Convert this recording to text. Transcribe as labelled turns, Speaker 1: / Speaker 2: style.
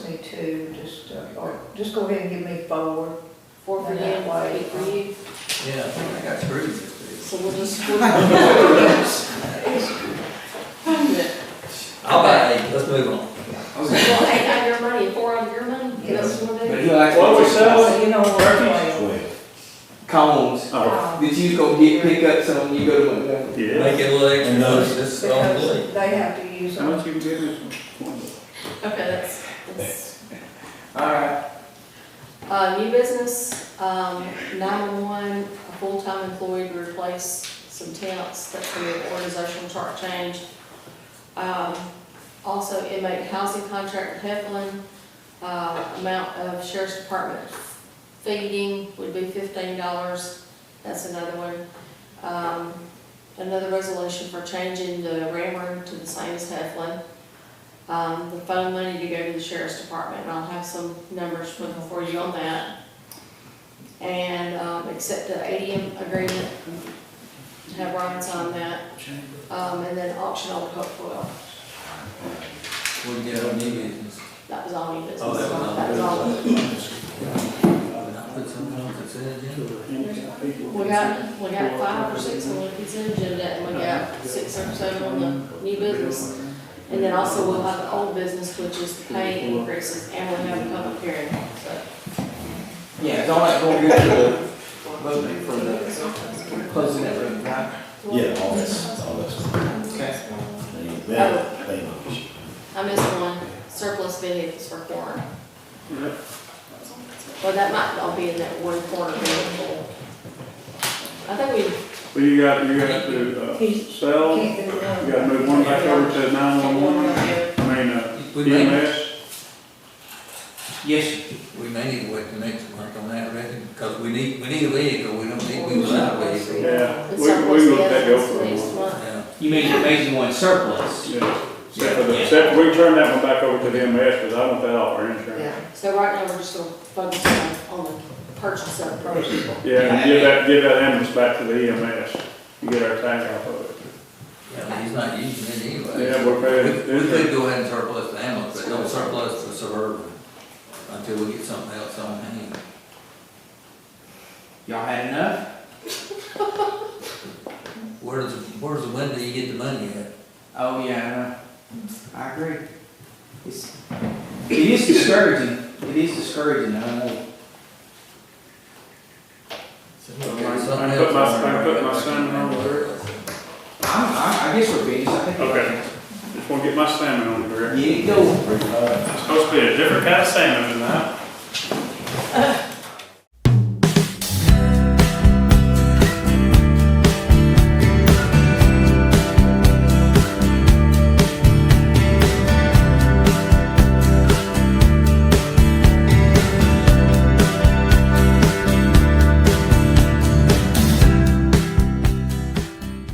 Speaker 1: two, just, uh, or just go ahead and give me four.
Speaker 2: Four for you,
Speaker 1: That way.
Speaker 2: eight for you,
Speaker 3: Yeah, I think I got three of
Speaker 2: so we'll just. split it.
Speaker 3: these. I'll buy eight, let's move on.
Speaker 2: So we'll eight out of your money, and four out of your money, give us one day.
Speaker 4: What we selling?
Speaker 1: So you know what um, I'm
Speaker 5: Cones
Speaker 4: Oh,
Speaker 5: that you go get, pick up some when you go to Montgomery.
Speaker 4: yeah.
Speaker 3: Make it a little extra,
Speaker 6: And
Speaker 1: uh,
Speaker 6: those-
Speaker 3: money, this is on the
Speaker 1: Because they have to use
Speaker 4: How
Speaker 1: them.
Speaker 4: much you can give us?
Speaker 2: Okay, that's, that's,
Speaker 5: Alright,
Speaker 2: uh, new business, um, nine-one-one, a full-time employee to replace some temps, that's for the organizational chart change. Um, also inmate housing contract with Heflin, uh, amount of sheriff's department feeding would be fifteen dollars, that's another one. Um, another resolution for changing the Rammer to the same as Heflin. Um, the phone money to go to the sheriff's department, and I'll have some numbers for, for you on that. And, um, accept the ADM agreement, have Ryan sign that, um, and then auction all the Hopewell.
Speaker 3: We'll get on new business.
Speaker 2: That was all new business.
Speaker 3: Oh, that was all
Speaker 2: That was all.
Speaker 3: Did I put something on consent agenda?
Speaker 2: We got, we got five or six on the consent agenda, and we got six or seven on the new business. And then also we'll have the old business, which is the pay increases, and we'll have a public hearing, so.
Speaker 5: yeah, don't let go get the, voting for the closing that room, right?
Speaker 6: Yeah, all this, all this.
Speaker 5: Okay.
Speaker 6: They- they're- they know we should-
Speaker 2: Oh. I missed one, surplus vehicles for corn. Well, that might all be in that one corner vehicle. I think
Speaker 4: Well, you got, you got to, uh,
Speaker 1: He
Speaker 4: sell, you
Speaker 1: can't do it.
Speaker 4: gotta move one back over to nine one one, I mean, uh,
Speaker 3: We may,
Speaker 4: EMS.
Speaker 5: Yes, sir.
Speaker 3: we may need to wait till next month on that, reckon, because we need, we need a vehicle, we don't need, we without a vehicle.
Speaker 4: yeah,
Speaker 2: we,
Speaker 4: we,
Speaker 2: the surplus
Speaker 4: we will take
Speaker 2: vehicles
Speaker 4: over.
Speaker 2: next
Speaker 4: one.
Speaker 2: month.
Speaker 3: Yeah,
Speaker 5: you mean, you made you one surplus?
Speaker 4: Yeah, except for the, except, we turn that one back over to the E EMS, because I want that off our insurance.
Speaker 1: Yeah,
Speaker 2: So right now, we're just gonna focus on, on the purchase of the property.
Speaker 4: Yeah, and give that, give that ambulance back to the EMS, and get our tag off of it.
Speaker 3: yeah, he's not using it anyway.
Speaker 4: Yeah, uh, we're
Speaker 3: We we
Speaker 4: paying,
Speaker 3: could go ahead and surplus the ambulance, but don't surplus the suburban until we get something else on hand.
Speaker 5: Y'all had enough?
Speaker 3: Where's, where's the window you get the money at?
Speaker 5: Oh, yeah, I know. I agree. It's, it is discouraging, it is discouraging, I know.
Speaker 3: Okay,
Speaker 4: I
Speaker 3: something
Speaker 4: put
Speaker 3: else
Speaker 4: my-
Speaker 3: on there.
Speaker 4: I put my son on there.
Speaker 5: I, I, I guess we're finished, I think.
Speaker 4: Okay. just wanna get my salmon on the grill.
Speaker 5: Yeah, go.
Speaker 4: It's supposed to be a different kind of salmon tonight.